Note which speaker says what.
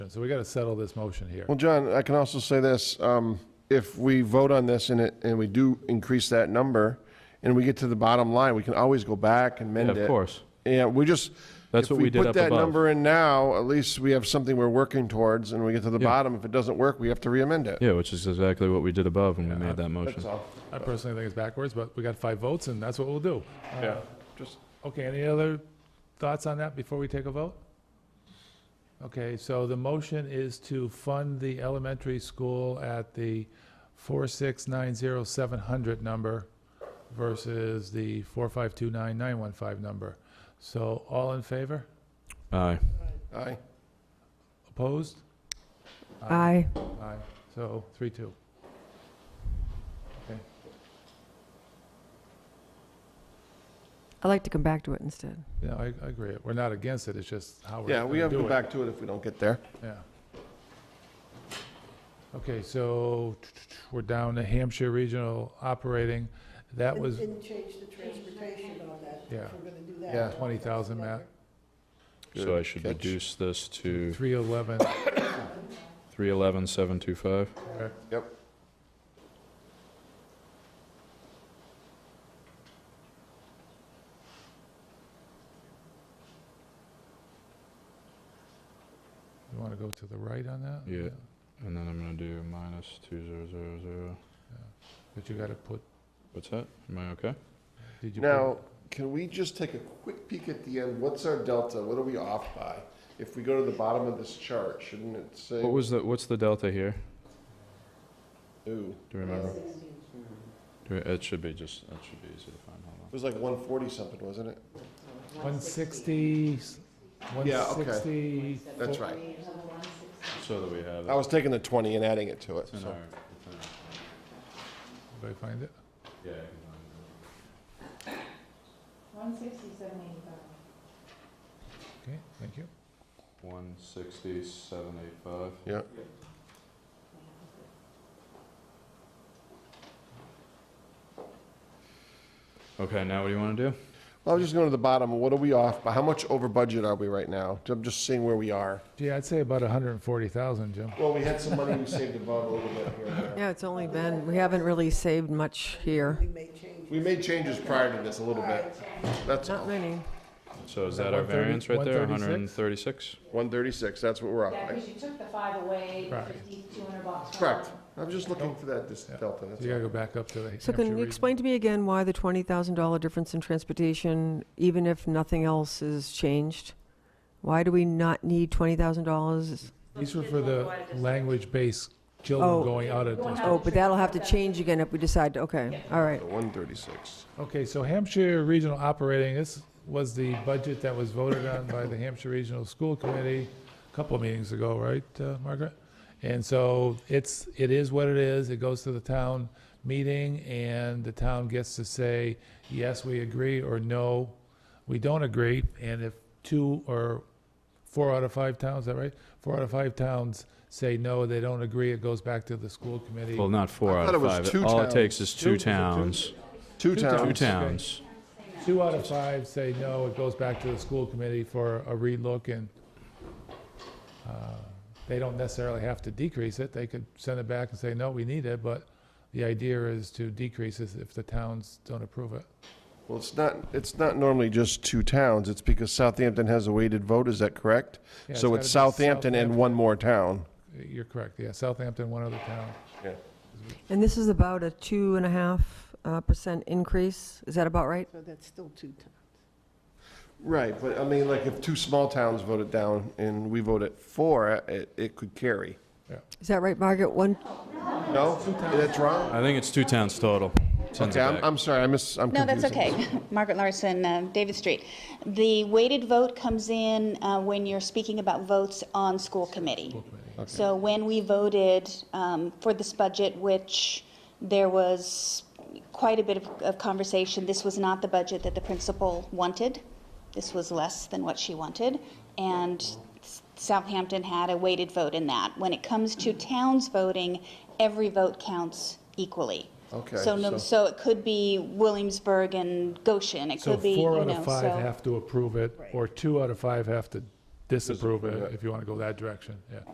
Speaker 1: so we got to settle this motion here.
Speaker 2: Well, John, I can also say this, um, if we vote on this and it, and we do increase that number, and we get to the bottom line, we can always go back and mend
Speaker 3: Yeah,
Speaker 2: it.
Speaker 3: Of course.
Speaker 2: And we just.
Speaker 3: That's what we did up
Speaker 2: If we put that
Speaker 3: above.
Speaker 2: number in now, at least we have something we're working towards, and we get to the
Speaker 3: Yeah.
Speaker 2: bottom, if it doesn't work, we have to re-amend it.
Speaker 3: Yeah, which is exactly what we did above when we
Speaker 1: Yeah,
Speaker 3: made that
Speaker 2: That's
Speaker 3: motion.
Speaker 2: all,
Speaker 1: I personally think it's backwards, but we got five votes, and that's what we'll do. Uh,
Speaker 2: yeah, just,
Speaker 1: Okay, any other thoughts on that before we take a vote? Okay, so the motion is to fund the elementary school at the four six nine zero seven hundred number versus the four five two nine nine one five number. So all in favor?
Speaker 3: Aye.
Speaker 2: aye.
Speaker 1: Opposed?
Speaker 4: Aye.
Speaker 1: Aye, so three, two. Okay,
Speaker 4: I'd like to come back to it instead.
Speaker 1: yeah, I, I agree. We're not against it, it's just how we're
Speaker 2: Yeah, we
Speaker 1: gonna
Speaker 2: have to
Speaker 1: do
Speaker 2: go
Speaker 1: it.
Speaker 2: back to it if we don't get there.
Speaker 1: Yeah. Okay, so we're down to Hampshire Regional Operating. That was
Speaker 5: And change the transportation on that,
Speaker 1: Yeah.
Speaker 5: if we're gonna do that.
Speaker 2: Yeah.
Speaker 1: 20,000, Matt.
Speaker 3: So I should
Speaker 2: Good catch.
Speaker 3: reduce this to
Speaker 1: 311,
Speaker 3: three eleven seven two five.
Speaker 1: correct?
Speaker 2: Yep.
Speaker 1: You want to go to the right on that?
Speaker 3: Yeah. And then I'm gonna do minus two zero zero zero.
Speaker 1: But you got to put,
Speaker 3: What's that? Am I okay?
Speaker 1: did you? put-
Speaker 2: Now, can we just take a quick peek at the end? What's our delta? What are we off by? If we go to the bottom of this chart, shouldn't it say?
Speaker 3: What was the, what's the delta here?
Speaker 2: Ooh,
Speaker 3: Do you remember? Do, we- it should be just, it should be easy to find, hold
Speaker 2: it was like one forty something, wasn't it?
Speaker 1: 160,
Speaker 2: Yeah, okay.
Speaker 1: 160.
Speaker 2: That's right.
Speaker 3: on. So that we have
Speaker 2: I
Speaker 3: it.
Speaker 2: was taking the twenty and adding it to it,
Speaker 3: It's in
Speaker 2: so.
Speaker 3: our, it's in
Speaker 1: Did
Speaker 3: our-
Speaker 1: I find it?
Speaker 3: yeah, I can find
Speaker 6: One sixty-seven eighty-five.
Speaker 1: Okay, thank you.
Speaker 3: it. One sixty seven eight five.
Speaker 2: Yeah,
Speaker 3: Okay, now what do you wanna do?
Speaker 2: I was just going to the bottom. What are we off by? How much over budget are we right now? I'm just seeing where we are.
Speaker 1: Gee, I'd say about 140,000, Jim.
Speaker 2: Well, we had some money we saved above a little bit here. and there.
Speaker 4: Yeah, it's only been, we haven't really saved much here.
Speaker 5: We may change.
Speaker 2: We made changes prior to this a little bit. That's
Speaker 4: Not
Speaker 2: all.
Speaker 4: many.
Speaker 3: So is
Speaker 1: that
Speaker 3: that our
Speaker 1: 130
Speaker 3: variance right there, hundred and
Speaker 1: 136?
Speaker 3: thirty-six?
Speaker 2: One thirty-six, that's what we're off
Speaker 6: Yeah,
Speaker 2: by.
Speaker 6: because you took the five away,
Speaker 1: Right.
Speaker 6: fifty, two hundred bucks. from
Speaker 2: Correct.
Speaker 6: them.
Speaker 2: I was just looking for that dis-
Speaker 1: Yeah.
Speaker 2: delta.
Speaker 1: So
Speaker 2: that's
Speaker 1: you got to
Speaker 2: all.
Speaker 1: go back up to the
Speaker 4: So
Speaker 1: Hampshire
Speaker 4: can you
Speaker 1: Regional.
Speaker 4: explain to me again why the $20,000 difference in transportation, even if nothing else is changed? Why do we not need $20,000?
Speaker 1: These were for the language-based children
Speaker 4: Oh.
Speaker 1: going out of
Speaker 6: Going
Speaker 1: district.
Speaker 6: out.
Speaker 4: Oh, but that'll have to change again if we decide, okay, all right.
Speaker 2: So One thirty-six.
Speaker 1: Okay, so Hampshire Regional Operating, this was the budget that was voted on by the Hampshire Regional School Committee a couple of meetings ago, right, uh, Margaret? And so it's, it is what it is. It goes to the town meeting, and the town gets to say, yes, we agree, or no, we don't agree. And if two or four out of five towns, is that right? Four out of five towns say no, they don't agree, it goes back to the school committee.
Speaker 3: Well, not four
Speaker 2: I
Speaker 3: out
Speaker 2: thought
Speaker 3: of
Speaker 2: it was
Speaker 3: five.
Speaker 2: two
Speaker 3: All it
Speaker 2: towns.
Speaker 3: takes is
Speaker 1: Two-
Speaker 3: two
Speaker 1: is it two?
Speaker 3: towns.
Speaker 2: Two
Speaker 1: Two
Speaker 2: towns.
Speaker 3: Two
Speaker 1: Okay.
Speaker 3: towns.
Speaker 1: Two out of five say no, it goes back to the school committee for a relook, and uh, they don't necessarily have to decrease it, they could send it back and say, no, we need it, but the idea is to decrease it if the towns don't approve it.
Speaker 2: Well, it's not, it's not normally just two towns, it's because Southampton has a weighted vote, is that correct?
Speaker 1: Yeah,
Speaker 2: So
Speaker 1: it's
Speaker 2: it's
Speaker 1: gotta be
Speaker 2: Southampton and one more town.
Speaker 1: You're correct, yeah, Southampton, one other town.
Speaker 2: Yeah.
Speaker 4: And this is about a 2.5% increase, is that about right?
Speaker 5: So that's still two times.
Speaker 2: Right, but I mean, like, if two small towns voted down and we voted for, it, it could carry.
Speaker 4: Is that right, Margaret? One,
Speaker 2: No? That's wrong?
Speaker 3: I think it's two towns total. It's in the
Speaker 2: Okay, I'm,
Speaker 3: back.
Speaker 2: I'm sorry, I miss, I'm
Speaker 7: No, that's
Speaker 2: confusing.
Speaker 7: okay. Margaret Larson, uh, David Street. The weighted vote comes in uh, when you're speaking about votes on school committee. So when we voted um, for this budget, which there was quite a bit of- of conversation, this was not the budget that the principal wanted. This was less than what she wanted. And Southampton had a weighted vote in that. When it comes to towns voting, every vote counts equally.
Speaker 2: Okay,
Speaker 7: So no,
Speaker 2: so-
Speaker 7: so it could be Williamsburg and Goshen, it
Speaker 1: So
Speaker 7: could be, you
Speaker 1: four out
Speaker 7: know,
Speaker 1: of five
Speaker 7: so.
Speaker 1: have to approve it, or two out of five have to disapprove it, if you want to go that direction, yeah.